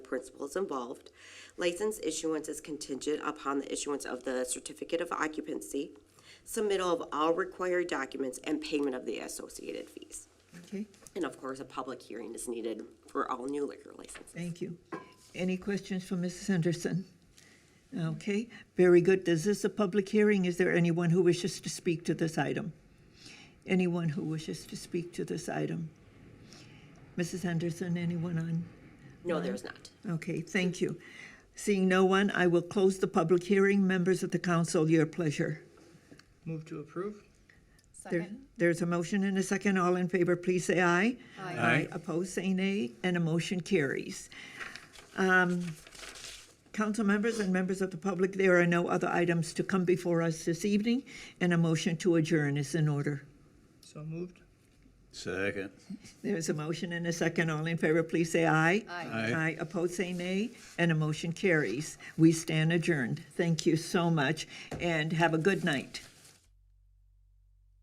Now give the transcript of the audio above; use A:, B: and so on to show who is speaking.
A: principals involved. License issuance is contingent upon the issuance of the certificate of occupancy, submittal of all required documents, and payment of the associated fees.
B: Okay,
A: And of course, a public hearing is needed for all new liquor licenses.
B: thank you. Any questions for Mrs. Henderson? Okay, very good. Is this a public hearing? Is there anyone who wishes to speak to this item? Anyone who wishes to speak to this item? Mrs. Henderson, anyone on?
A: No, there's not.
B: Okay, thank you. Seeing no one, I will close the public hearing. Members of the council, your pleasure.
C: Move to approve?
B: There- There's a motion and a second. All in favor, please say aye. Aye. Opposed, say nay, and a motion carries. Um, Council members and members of the public, there are no other items to come before us this evening, and a motion to adjourn is in order.
C: So moved?
D: Second.
B: There's a motion and a second. All in favor, please say aye.
D: Aye.
B: Aye. Opposed, say nay, and a motion carries. We stand adjourned. Thank you so much, and have a good night.